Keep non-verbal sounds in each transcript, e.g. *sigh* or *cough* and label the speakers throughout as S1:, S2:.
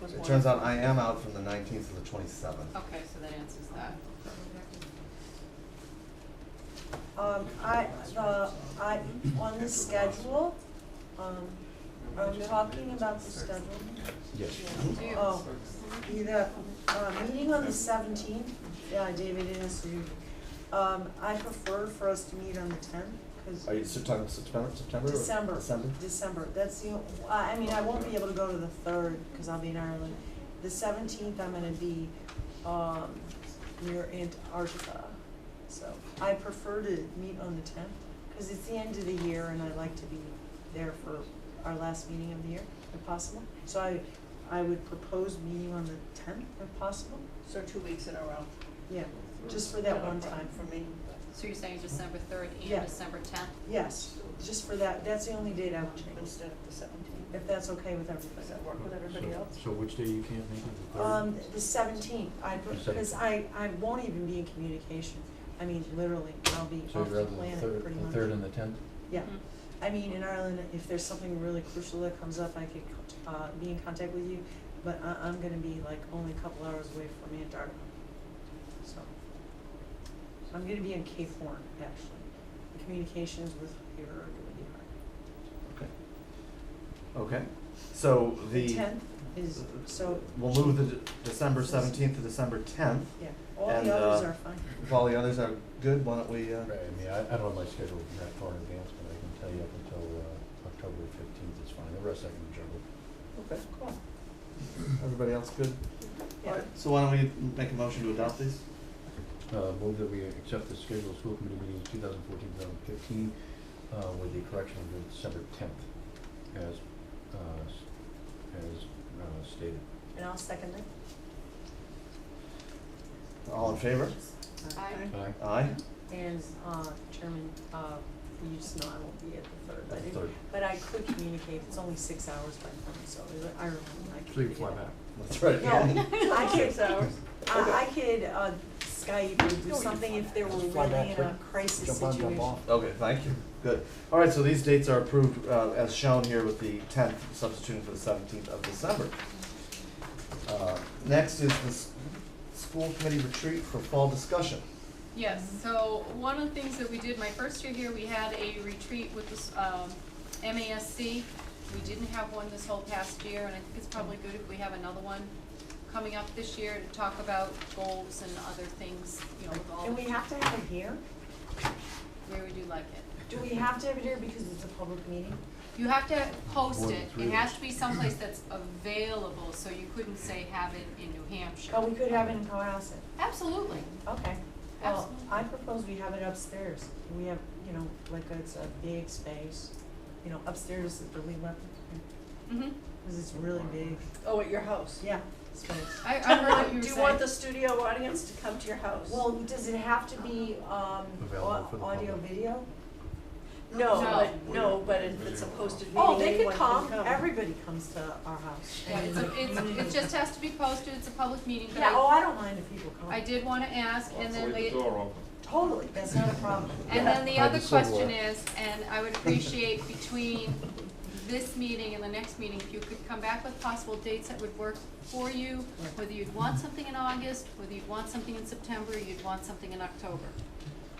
S1: was one.
S2: It turns out I am out from the nineteenth to the twenty-seventh.
S1: Okay, so that answers that.
S3: Um, I, the, I, on the schedule, um, are we talking about the schedule?
S2: Yes.
S1: Do you-
S3: Oh, either, uh, meeting on the seventeenth, yeah, David it is you. Um, I prefer for us to meet on the tenth, cause
S2: Are you September, September, September? or
S3: December,
S2: December?
S3: December, that's the, o- I, I mean, I won't be able to go to the third, cause I'll be in Ireland. The seventeenth, I'm gonna be, um, near Antarctica, so I prefer to meet on the tenth, cause it's the end of the year and I like to be there for our last meeting of the year, if possible. So I, I would propose meeting on the tenth, if possible,
S4: So two weeks in a row.
S3: yeah, just for that one time.
S4: For me.
S1: So you're saying December third
S3: Yeah.
S1: and December tenth?
S3: Yes, just for that, that's the only date I would change,
S4: Instead of the seventeenth.
S3: if that's okay with
S4: Does
S3: everybody.
S4: that work with everybody
S5: So-
S4: else?
S5: So which day you can't make it, the third?
S3: Um, the seventeenth, I,
S5: The
S3: because
S5: 17th.
S3: I, I won't even be in communication, I mean, literally, I'll be
S5: So
S3: off
S5: you'd
S3: the
S5: rather the
S3: planet
S5: third,
S3: pretty
S5: the
S3: much.
S5: third and the tenth?
S3: Yeah,
S1: Mm-hmm.
S3: I mean, in Ireland, if there's something really crucial that comes up, I could, uh, be in contact with you, but I, I'm gonna be like only a couple hours away from Antarctica, so. I'm gonna be in Cape Horn, actually, communications with here are gonna be hard.
S2: Okay. Okay, so the.
S3: The tenth is, so,
S2: We'll move the De- December seventeenth to December tenth.
S3: yeah, all
S2: And,
S3: the others
S2: uh,
S3: are fine.
S2: If all the others are good, why don't we, uh,
S6: Right, I mean, I, I don't have my schedule that far in advance, but I can tell you up until, uh, October fifteenth is fine, the rest I can juggle.
S2: okay, cool. Everybody else good?
S3: Yeah.
S2: Alright, so why don't we make a motion to adopt these?
S6: Uh, move that we accept the schedule of school committee meetings 2014-2015 uh, with the correction of the December tenth as, uh, s- as, uh, stated.
S3: And I'll second that.
S2: All in favor?
S1: I,
S6: Aye.
S2: Aye?
S3: And, uh, Chairman, uh, you just know I won't be at the third, but
S6: That's
S3: it,
S6: third.
S3: but I could communicate, it's only six hours by phone, so I- I remember, I could.
S5: So you
S3: do
S5: fly
S3: that.
S5: back.
S2: That's right. *laughs*
S3: No, *laughs* I
S4: Six
S3: could,
S4: hours.
S3: I, I could, uh, Skype or do
S4: No, you
S3: something if there were
S6: Just fly back
S3: really in a
S6: quick,
S3: crisis
S6: Jump on,
S3: situation.
S6: jump off.
S2: Okay, thank you. Good. All right, so these dates are approved uh, as shown here with the 10th substituting for the 17th of December. Uh, Next is the s- school committee retreat for fall discussion.
S1: yes, so one of the things that we did, my first year here, we had a retreat with the, s- um, MASC. We didn't have one this whole past year, and I think it's probably good if we have another one coming up this year to talk about goals and other things, you know, with all,
S3: And we have to have it here?
S1: where would you like it?
S3: Do we have to have it here because it's a public meeting?
S1: You have to post
S6: More than
S1: it,
S6: three
S1: it
S6: of
S1: has
S6: us.
S1: to be someplace that's available, so you couldn't say have it in New Hampshire.
S3: But Oh, we could have it in Cohasset,
S1: Absolutely,
S3: okay. Well,
S1: Absolutely.
S3: I propose we have it upstairs, we have, you know, like it's a big space, you know, upstairs is the lead weapon.
S1: hmm
S3: Because it's really big.
S4: Oh, at your house?
S3: Yeah, space.
S1: I, I heard what you were
S4: Do you
S1: saying.
S4: want the studio audience to come to your house?
S3: Well, does it have to be, um,
S6: Available for
S3: au-
S6: the
S3: audio,
S6: public.
S3: video?
S4: No,
S1: No.
S4: but, no, but if it's a posted meeting,
S3: Oh, they could
S4: anyone can
S3: come, everybody comes to our house. Mm-hmm.
S1: Yeah, it's, a- it's, it just has to be posted, it's a public meeting, but
S3: *laughs* Yeah, oh,
S1: I,
S3: I don't mind if people come.
S1: I did wanna ask, and then
S7: Leave
S1: we,
S7: the door open.
S3: Totally, that's not a problem.
S1: and then the
S6: Hide the
S1: other question
S6: silverware.
S1: is, and I would appreciate between this meeting and the next meeting, if you could come back with possible dates that would work for you,
S3: Right.
S1: whether you'd want something in August, whether you'd want something in September, you'd want something in October.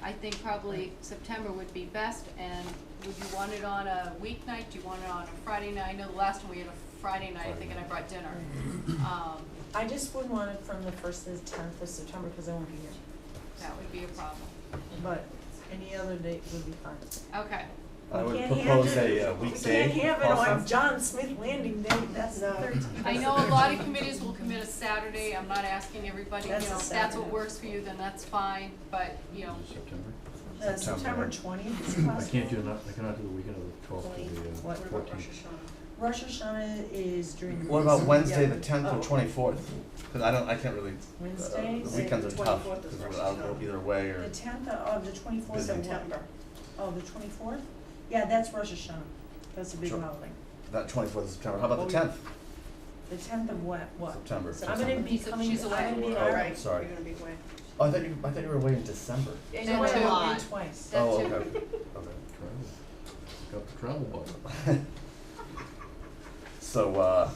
S1: I think probably September would be best, and would you want it on a weeknight, do you want it on a Friday night? I know the last one we had a Friday night, I think, and I brought dinner. Um,
S3: I just wouldn't want it from the first to the tenth of September, because I won't be here,
S1: That would be a problem.
S3: but any other date would be fine.
S1: Okay,
S2: I
S3: We
S2: would
S3: can't have
S2: propose
S3: it-
S2: a uh, weekday.
S3: We can't have it Oh,
S2: also.
S3: on John Smith Landing Day, that's the thirteenth.
S1: I know a lot of committees will commit a Saturday, I'm not asking everybody, you know,
S3: That's a
S1: if that's what
S3: Saturday.
S1: works for you, then that's fine, but, you know,
S6: September.
S3: Uh, September
S2: September.
S3: twentieth is
S6: I
S3: possible.
S6: can't do, not, I cannot do the weekend of the twelfth to the uh,
S3: What
S6: fourteenth.
S3: about Rosh Hashanah is during.
S2: What about Wednesday, the
S3: Yeah.
S2: 10th or
S3: Oh.
S2: 24th? Because I don't, I can't really,
S3: Wednesday,
S2: uh, the weekends are tough,
S4: 24th is
S2: because
S4: Rosh
S2: I'll go
S4: Hashanah.
S2: either way
S3: the
S2: or,
S3: tenth of the twenty-fourth of
S4: September.
S3: Oh, the twenty-fourth? Yeah, that's Rosh Hashanah. That's a big
S2: Sure.
S3: holiday.
S2: that 24th of September. How about the
S3: Oh,
S2: 10th?
S3: The tenth of what, what?
S2: September,
S3: I'm gonna
S2: September.
S3: be
S1: She's a-
S3: coming, I'm
S1: she's away.
S3: gonna
S2: Oh,
S3: be,
S4: All
S3: I'm
S4: right, you're
S2: sorry.
S4: gonna be away.
S2: Oh, I thought you, I thought you were away in December.
S3: in
S1: That's a lot.
S3: twice.
S1: That's
S2: Oh,
S1: it.
S2: okay,
S3: *laughs*
S2: okay.
S6: Travel. Got the travel bug.
S2: *laughs* So, uh,